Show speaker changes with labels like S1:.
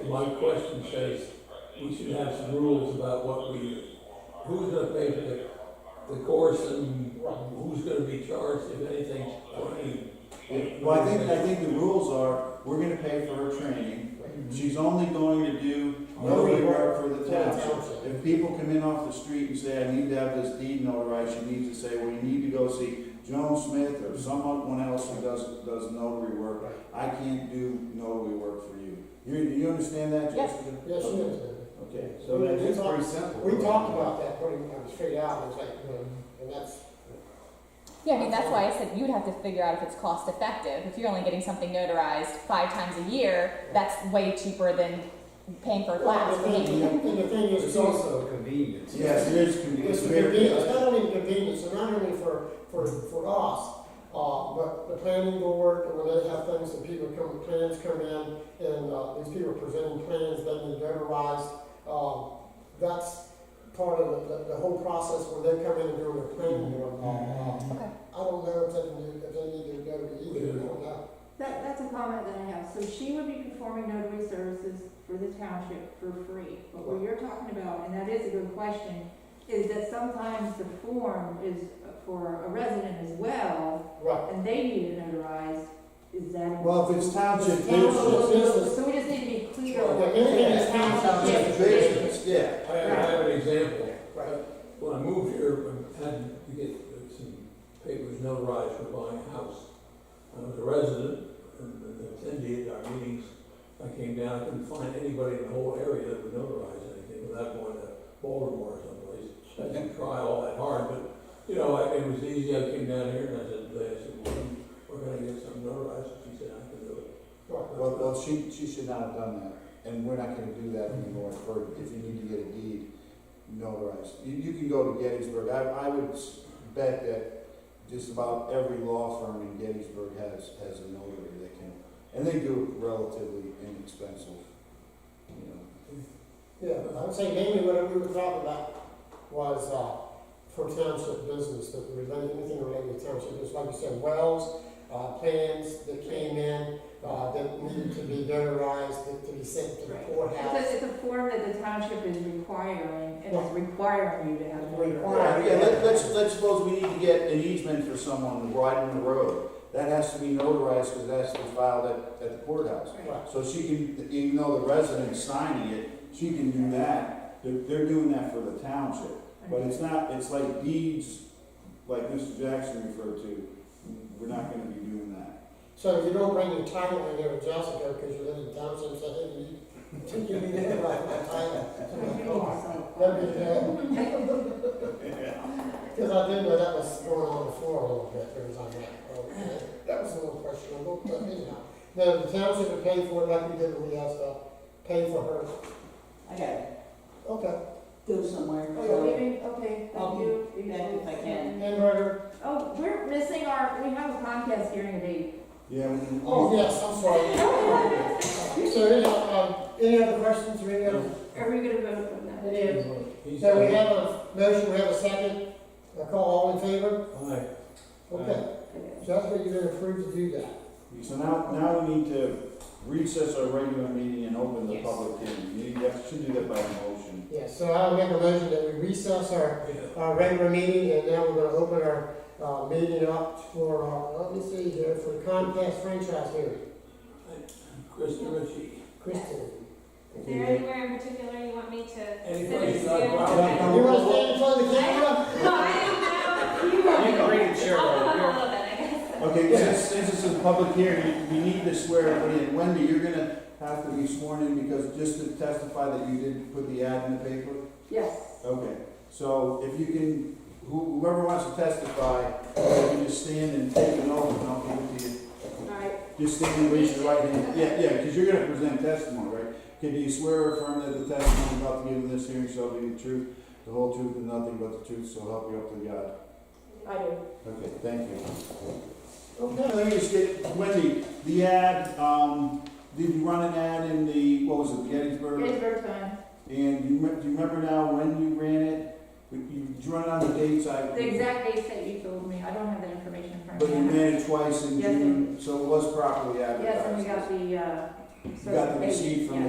S1: And my question says, we should have some rules about what we, who's gonna pay for the, the course and who's gonna be charged, if anything, for any.
S2: Well, I think, I think the rules are, we're gonna pay for her training, she's only going to do notary work for the town. If people come in off the street and say, I need to have this deed notarized, she needs to say, well, you need to go see Joan Smith or someone else who does, does notary work. I can't do notary work for you. You, you understand that,
S3: Yes.
S2: Jessica?
S4: Yes, she is.
S2: Okay, so that is pretty simple.
S4: We talked about that, putting them straight out, it's like, and that's,
S3: Yeah, I mean, that's why I said you'd have to figure out if it's cost effective. If you're only getting something notarized five times a year, that's way cheaper than paying for a class.
S4: and the thing, and the thing is,
S5: It's
S4: too,
S5: also convenience.
S2: Yes, it is, con- it's
S4: it's
S2: very.
S4: convenience, not only convenience, and not only for, for, for us, uh, but the planning board, and when they have things, and people come, plans come in, and, uh, these people presenting plans, then they notarize, um, that's part of the, the, the whole process when they come in and do their planning board.
S2: Mm-hmm.
S4: Uh,
S3: Okay.
S4: I don't know if they can do, if they need to go to either, I don't know.
S6: That, that's a comment that I have. So she would be performing notary services for the township for free. But what you're talking about, and that is a good question, is that sometimes the form is for a resident as well,
S4: Right,
S6: and they need it notarized. Is that?
S2: Well, if it's township
S4: Township.
S2: business,
S6: So we just need to be clear. on what
S4: Anything that's
S2: township business, yeah.
S1: I have, I have an example.
S4: right.
S1: When I moved here, I had to get some papers notarized for buying a house. I was a resident and and attended our meetings. I came down, I couldn't find anybody in the whole area that would notarize anything without going to Baltimore or someplace. I didn't try all that hard, but, you know, I- it was easy. I came down here and I said, I said, well, we're gonna get something notarized. She said, I can do it.
S2: Well, well, she, she should not have done that, and we're not gonna do that anymore for, if you need to get a deed notarized. You, you can go to Gettysburg, I, I would s- bet that just about every law firm in Gettysburg has, has a notary that can, and they do it relatively inexpensive, you know.
S4: Yeah, I'm saying mainly what we were talking about was, uh, for township business, that related, anything related to township business, like you said, wells, uh, plans that came in, uh, that needed to be notarized, that to be sent to the
S6: Right.
S4: courthouse.
S6: It's a, it's a form that the township is requiring, and is requiring you to have.
S4: Required.
S2: Alright, yeah, let, let's, let's suppose we need to get an easement for someone to widen the road. That has to be notarized, cause that's filed at, at the courthouse.
S4: Right.
S2: So she can, even though the resident's signing it, she can do that. They're, they're doing that for the township. But it's not, it's like deeds, like Mr. Jackson referred to, we're not gonna be doing that.
S4: So if you don't bring your title in there, Jessica, because you live in township, so hey, you, you can be notarized my title. That'd be, because I did know that was going on before a little bit, there was on that, okay, that was a little questionable, but anyhow. Now, the township would pay for it like we did when we asked, uh, pay for her,
S7: I gotta
S4: okay.
S7: go somewhere.
S6: We're Oh, leaving, okay,
S7: I'll
S6: thank
S7: be
S6: you.
S7: back if I can.
S4: Hamburger,
S6: Oh, we're missing our, we have a Comcast hearing date.
S2: Yeah. we- we-
S4: oh, yes, I'm sorry. So, anyhow, um, any other questions, or any other?
S6: Are we gonna vote on that?
S4: Any other?
S1: He's-
S4: So we have a motion, we have a second, I call all in favor,
S1: Hi.
S4: okay, Jessica, you've been approved to do that.
S2: So now, now we need to recess our regular meeting and open the
S7: Yes.
S2: public hearing. You need- you should do that by motion.
S4: Yes, so I'll make a motion that we recess our
S1: Yeah.
S4: our regular meeting, Uh, and now we're gonna open our, uh, meeting up for, uh, let me see here, for Comcast franchise hearing.
S1: Kristen Ritchie.
S4: Kristen,
S8: Is there anywhere in particular you want me to?
S1: Any
S8: send
S1: place
S8: it
S1: I'd
S8: to?
S1: rather-
S2: Yeah.
S4: you wanna stand in front of the camera?
S8: No, I don't know. You
S5: can bring it, sure.
S8: I'll come up a little bit, I guess.
S2: Okay, since, since it's a public hearing, we need to swear everybody in. Wendy, you're gonna have to be sworn in because just to testify that you didn't put the ad in the paper.
S6: Yes.
S2: Okay, so if you can, who- whoever wants to testify, you can just stand and take an oath and I'll give it to you.
S6: All right.
S2: Just stand and raise your right hand. Yeah, yeah, because you're gonna present testimony, right? Can you swear or affirm that the testimony about to give in this hearing shall be the truth, the whole truth and nothing but the truth, so help you up to God?
S6: I do.
S2: Okay, thank you.
S4: Okay,
S2: Okay, let me just get, Wendy, the ad, um, did you run an ad in the, what was it, Gettysburg?
S6: Gettysburg time.
S2: And you, rem- do you remember now when you ran it? You, you did you run it on the dates I?
S6: The exact dates that you told me, I don't have that information in front
S2: But
S6: of
S2: you
S6: me.
S2: ran it twice in
S6: Yes,
S2: June, so it was properly advertised.
S6: Yes, and we got the, uh.
S2: You got the receipt from the
S6: certification, yeah.